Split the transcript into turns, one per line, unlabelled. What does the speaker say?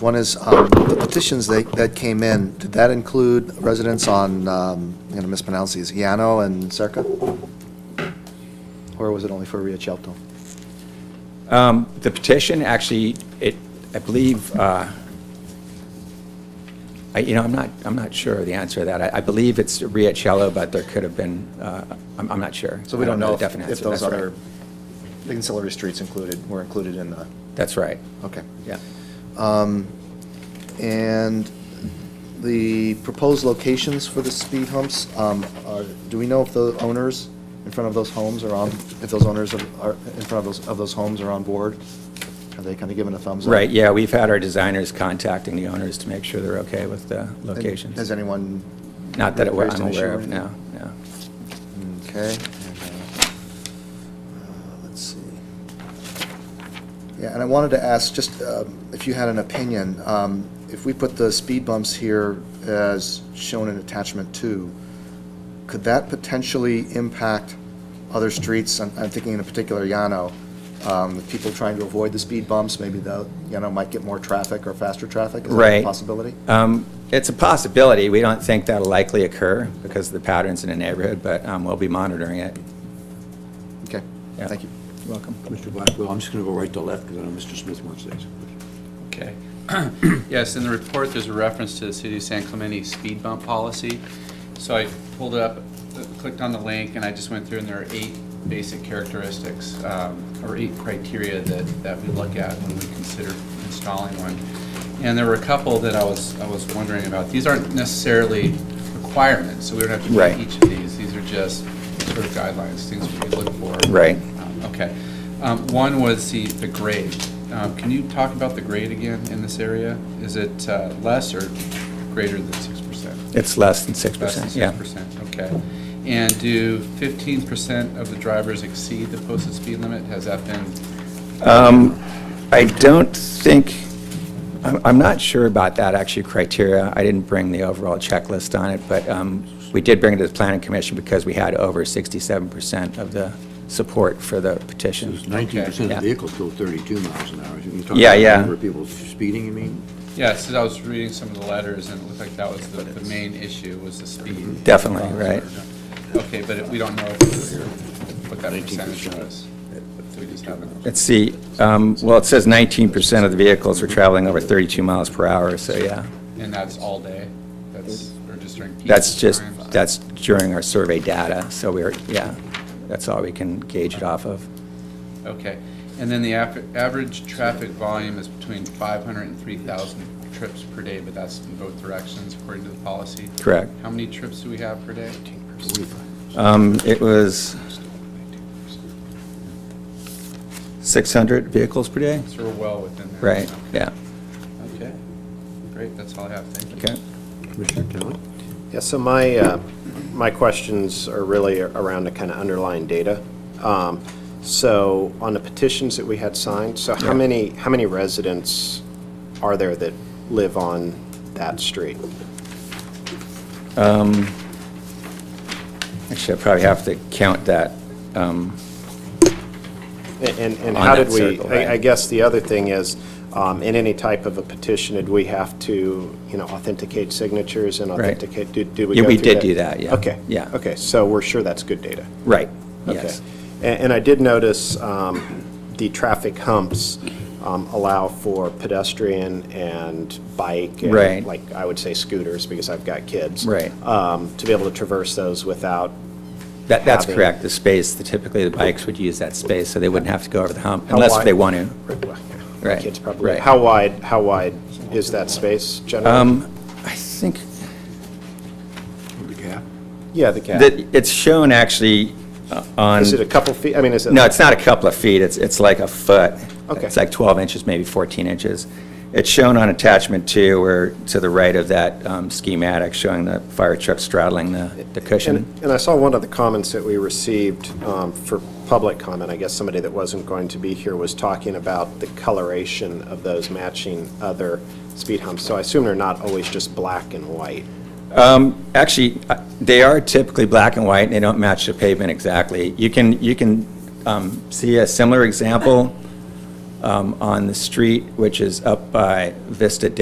One is, um, the petitions that, that came in, did that include residents on, um, I'm going to mispronounce these, Yano and Circa? Or was it only for Riachelto?
Um, The petition, actually, it, I believe, uh, I, you know, I'm not, I'm not sure of the answer to that. I, I believe it's Riacello, but there could have been, uh, I'm, I'm not sure.
So we
I
don't know
the
if
definite
if
answer.
those
That's right.
other ancillary streets included, were included in the,
That's right,
okay. Um,
yeah.
And the proposed locations for the speed humps, um, are, do we know if the owners in front of those homes are on, if those owners of- are, in front of those, of those homes are on board? Are they kind of giving a thumbs up?
Right, yeah, we've had our designers contacting the owners to make sure they're okay with the
And Has
locations.
anyone?
Not that it-
raised
I'm
an issue
aware
or
of, no,
anything?
no.
Okay. Uh, Let's see. Yeah, and I wanted to ask, just um, if you had an opinion, um, if we put the speed bumps here as shown in attachment two, could that potentially impact other streets? I'm I'm thinking in particular Yano, um, with people trying to avoid the speed bumps, maybe the, Yano might get more traffic or faster traffic? Is that a
Right.
possibility?
Um, It's a possibility. We don't think that'll likely occur because of the patterns in the neighborhood, but um, we'll be monitoring it.
Okay,
Yeah.
thank you.
Welcome.
Mr. Blackwell, I'm just going to go right to left because I know Mr. Smith wants these.
Okay. Yes, in the report, there's a reference to the city of San Clemente speed bump policy. So I pulled it up, clicked on the link, and I just went through, and there are eight basic characteristics, um, or eight criteria that, that we look at when we consider installing one. And there were a couple that I was, I was wondering about. These aren't necessarily requirements, so we don't have to
Right.
meet each of these. These are just sort of guidelines, things we could look for.
Right.
Um, Okay. Um, One was the, the grade. Um, Can you talk about the grade again in this area? Is it uh, less or greater than six percent?
It's less than 6%,
Less than
yeah.
six percent, okay. And do fifteen percent of the drivers exceed the posted speed limit? Has that been,
Um, I don't think, I'm I'm not sure about that actually criteria. I didn't bring the overall checklist on it, but um, we did bring it to the planning commission because we had over 67% of the support for the petition.
It's 19%
Yeah.
of vehicles go 32 miles an hour. You talk
Yeah,
about
yeah.
Number of people speeding, you mean?
yeah, since I was reading some of the letters and it looked like that was the, the main issue was the speed.
Mm-hmm.
Um,
Definitely, right.
Okay, but it- we don't know if it's- what that
19%.
percentage was. So we just haven't.
Let's see, um, well, it says 19% of the vehicles were traveling over 32 miles per hour, so yeah.
And that's all day? That's, or just during peak?
That's just,
time?
that's during our survey data, so we're, yeah, that's all we can gauge it off of.
Okay. And then the af- average traffic volume is between 500 and 3,000 trips per day, but that's in both directions according to the policy?
Correct.
How many trips do we have per day?
Um, It was 600 vehicles per day?
So we're well within that.
Right, yeah,
Okay. Great, that's all I have. Thank you.
okay.
Commissioner Kelly?
Yeah, so my, uh, my questions are really around the kind of underlying data. Um, So on the petitions that we had signed, so
Yeah.
how many, how many residents are there that live on that street?
Actually, I probably have to count that. um,
And- And, and
On
how
that
did we,
circle, right.
I I guess the other thing is, um, in any type of a petition, did we have to, you know, authenticate signatures and
Right.
authenticate, did did we
Yeah,
go
we
through
did do that, yeah.
Okay.
Yeah.
Okay, so we're sure that's good data?
Right,
Okay,
yes.
And and I did notice um, the traffic humps um, allow for pedestrian and bike. and,
Right.
Like, I would say scooters, because I've got kids.
Right.
um, To be able to traverse those without,
That, that's
Having-
correct, the space, the- typically the bikes would use that space, so they wouldn't have to go over the hump,
How
unless
wide-
they want to.
my
Right,
kids probably.
right. Um,
How wide, how wide is that space generally?
I think
The cap?
Yeah, the gap.
that it's shown actually uh, on,
Is it a couple feet? I mean, is it?
no, it's not a couple of feet, it's, it's like a foot.
Okay.
It's like 12 inches, maybe 14 inches. It's shown on attachment two, or to the right of that um, schematic, showing the fire truck straddling the the
And
cushion.
and I saw one of the comments that we received um, for public comment, I guess somebody that wasn't going to be here was talking about the coloration of those matching other speed humps. So I assume they're not always just black and white.
Actually, uh, they are typically black and white, and they don't match the pavement exactly. You can, you can um, see a similar example um, on the street, which is up by Vista